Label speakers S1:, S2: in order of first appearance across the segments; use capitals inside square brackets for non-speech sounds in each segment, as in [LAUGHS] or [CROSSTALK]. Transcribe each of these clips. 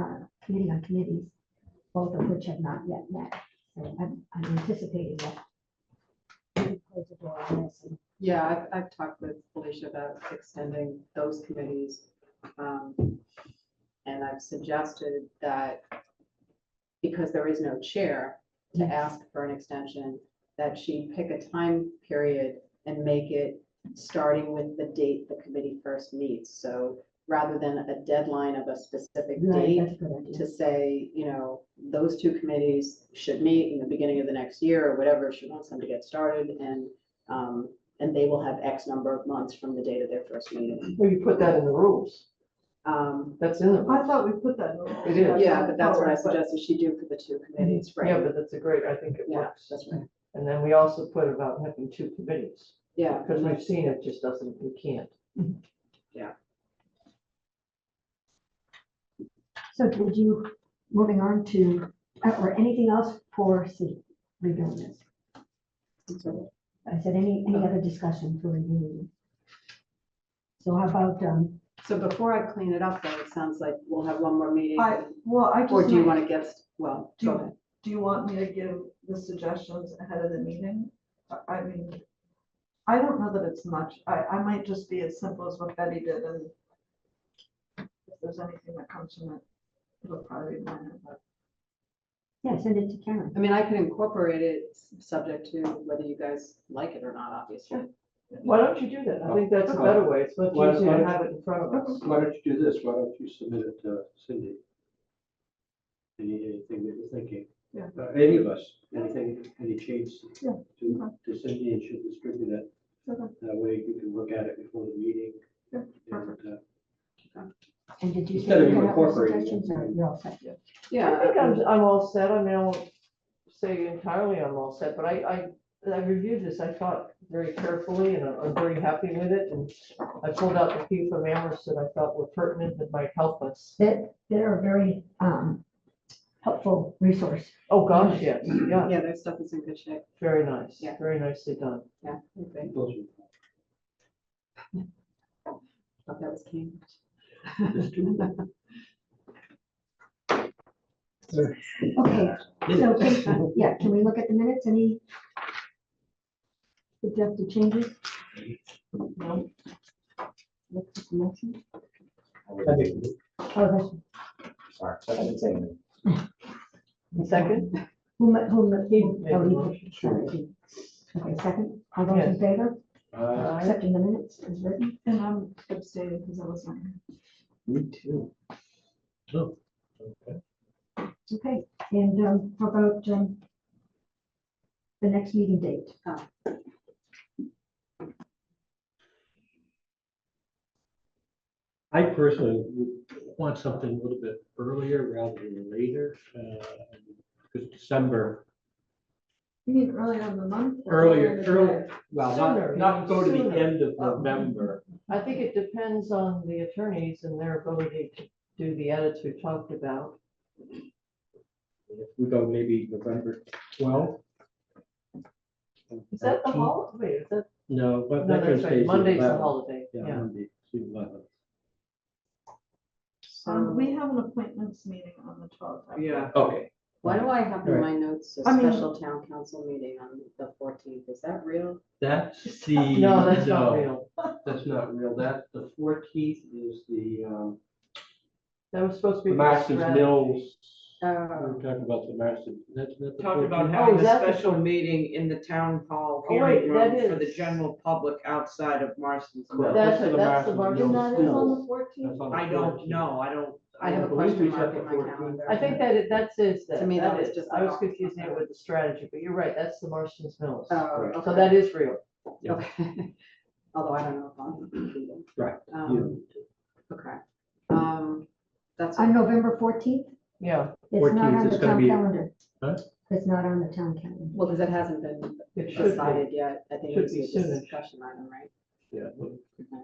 S1: uh, committee on committees, both of which have not yet met. So I'm, I'm anticipating that. we close the door on this and
S2: Yeah, I've, I've talked with Felicia about extending those committees. um, And I've suggested that because there is no chair to
S1: Yes.
S2: ask for an extension, that she pick a time period and make it starting with the date the committee first meets. So rather than a deadline of a specific
S1: Right,
S2: date,
S1: that's a good idea.
S2: to say, you know, those two committees should meet in the beginning of the next year or whatever, she wants them to get started and, um, and they will have X number of months from the date of their first meeting.
S3: Well, you put that in the rules.
S2: Um,
S3: That's in the
S4: I
S3: rules.
S4: thought we put that. in.
S3: It is.
S2: yeah, but that's what I
S4: But-
S2: suggested she do for the two committees,
S3: Yeah,
S2: right?
S3: but that's a great, I think it
S2: Yeah,
S3: works.
S2: that's right.
S3: And then we also put about having two committees,
S2: Yeah,
S3: because we've seen it just doesn't, we can't.
S1: So did you, moving on to, uh, or anything else for C, reviewing this? I said, any, any other discussion for reviewing? So how about, um,
S2: so before I clean it up, though, it sounds like we'll have one more meeting.
S4: I, well, I
S2: Or
S4: just,
S2: do you
S4: do
S2: want to guess, well,
S4: Do
S2: go
S4: you-
S2: ahead.
S4: you want me to give the suggestions ahead of the meeting? I- I mean, I don't know that it's much. I, I might just be as simple as what Betty did and if there's anything that comes from it, it'll probably be minor, but
S1: yeah, send it to Karen.
S2: I mean, I could incorporate it, s- subject to whether you guys like it or not, obviously.
S3: Why don't you do that? I think that's a better way. It's much
S5: Why-
S3: easier
S5: why-
S3: to have it in front of us.
S5: Why don't you do this? Why don't you submit it to Cindy? Any, anything that you're thinking?
S4: Yeah.
S5: Uh, Any of us, anything, any changes
S4: Yeah,
S5: to to Cindy and she'll distribute it.
S4: Okay.
S5: That way you can look at it before the meeting.
S4: Yeah,
S5: And,
S4: perfect.
S5: uh,
S1: And did you say
S5: Instead of you
S1: you had other
S5: incorporating it.
S1: suggestions or you're all set?
S2: Yeah.
S3: I think I'm, I'm all set. I mean, I won't say entirely I'm all set, but I, I, I reviewed this, I thought very carefully and I'm I'm very happy with it. And I pulled out the few from Amherst that I thought were pertinent that might help us.
S1: That, they're a very, um, helpful resource.
S3: Oh, gosh, yes, yeah,
S2: Yeah, their stuff is in good shape.
S3: very nice,
S2: Yeah.
S3: very nicely done.
S2: Yeah, okay.
S5: those are-
S2: thought that was Cambridge. [LAUGHS]
S1: Okay, so, can- yeah, can we look at the minutes? Any suggested changes?
S3: No.
S1: Look at the motion.
S6: I think,
S1: Oh, that's,
S6: sorry, I didn't say anything.
S3: Second?
S1: who, ma- who, ma- who?
S3: Made the
S1: oh,
S3: motion.
S1: you- sorry. Okay, second, all those in
S3: Yes.
S1: favor,
S5: Uh,
S3: Aye.
S1: accepting the minutes as written?
S4: and I'm abstaining because I wasn't. here.
S6: Me too. Oh, okay.
S1: Okay, and, um, how about, um, the next meeting date?
S6: I personally would want something a little bit earlier rather than later,
S5: uh,
S6: because December,
S4: You mean earlier in the month? or
S6: earlier,
S4: in the
S6: earlier,
S4: day?
S6: well,
S3: Sooner,
S6: not, not go to
S3: sooner.
S6: the end of
S4: Um,
S6: November.
S3: I think it depends on the attorneys and their ability to do the edits we talked about.
S6: If we go maybe November twelfth.
S3: Is that the holiday? Wait, is that,
S6: No, but
S3: no,
S6: Veterans
S3: that's
S6: Day
S3: right,
S6: is the
S3: Monday's the
S6: 11th.
S3: holiday,
S6: Yeah,
S3: yeah.
S6: Monday, it's the 11th.
S4: Um, we have an appointments meeting on the twelfth.
S2: Yeah.
S6: Okay,
S2: Why do I have in my notes a
S4: I mean-
S2: special town council meeting on the fourteenth? Is that real?
S5: That's the.
S3: No, that's not real.
S5: That's not real. That, the fourteenth is the, um,
S3: That was supposed to be.
S5: Masters
S3: strategy.
S5: Mills.
S3: Uh,
S5: We're
S2: Oh,
S5: talking about the Masters, that's not the
S7: talked about
S5: 14th.
S3: Oh,
S7: having
S3: is that
S7: a
S3: the-
S7: special meeting in the town hall
S3: Oh, wait,
S7: hearing
S3: that
S7: room for the
S3: is-
S7: general public outside of Marston's
S5: Correct.
S7: Mill.
S3: That's
S5: This is
S3: it, that's
S5: Masters
S3: the Marshall
S5: Mills.
S3: Mills.
S5: Mills.
S4: fourteenth?
S5: That's on the
S7: I don't
S5: 14th.
S7: know, I don't.
S2: I have a
S5: believe
S2: question
S5: we set
S2: mark
S5: the
S2: in my
S5: 14th.
S2: calendar.
S3: I think that it, that's is,
S2: To me, that
S3: that
S2: was
S3: is,
S2: just
S3: I
S2: like
S3: was
S2: off the
S3: confusing
S2: cuff.
S3: it with the strategy, but you're right, that's the Marston's Mills.
S2: Oh,
S3: So
S2: okay.
S3: that is real.
S6: Yeah.
S2: Okay. [LAUGHS] Although I don't know if I'll be there.
S6: Right,
S2: Um, Okay. Um, that's.
S1: On November fourteenth?
S3: Yeah,
S1: It's not
S6: 14th,
S1: on
S6: it's
S1: the
S6: gonna
S1: town
S6: be-
S1: calendar.
S6: Huh?
S1: It's not on the town calendar.
S2: Well, because it hasn't been
S3: it should be.
S2: decided yet. I think
S3: Should
S2: it's
S3: be
S2: a
S3: soonish.
S2: discussion item, right?
S6: yeah, we'll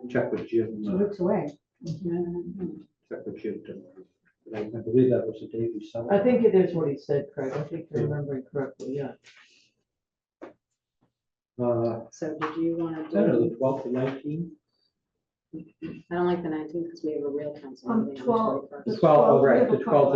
S6: check with Jim.
S1: She
S6: uh,
S1: looks away.
S2: Um,
S6: Check with Jim tomorrow. But I I believe that was the day we saw.
S3: I think it is what he said, Craig, I think you're remembering correctly, yeah.
S6: Uh,
S2: So did you want
S6: I
S2: to
S6: don't know,
S2: do,
S6: the twelfth or nineteenth?
S2: I don't like the nineteenth because we have a real council
S4: Um,
S2: meeting on the
S4: 12
S2: 21st.
S4: The 12th, we have a couple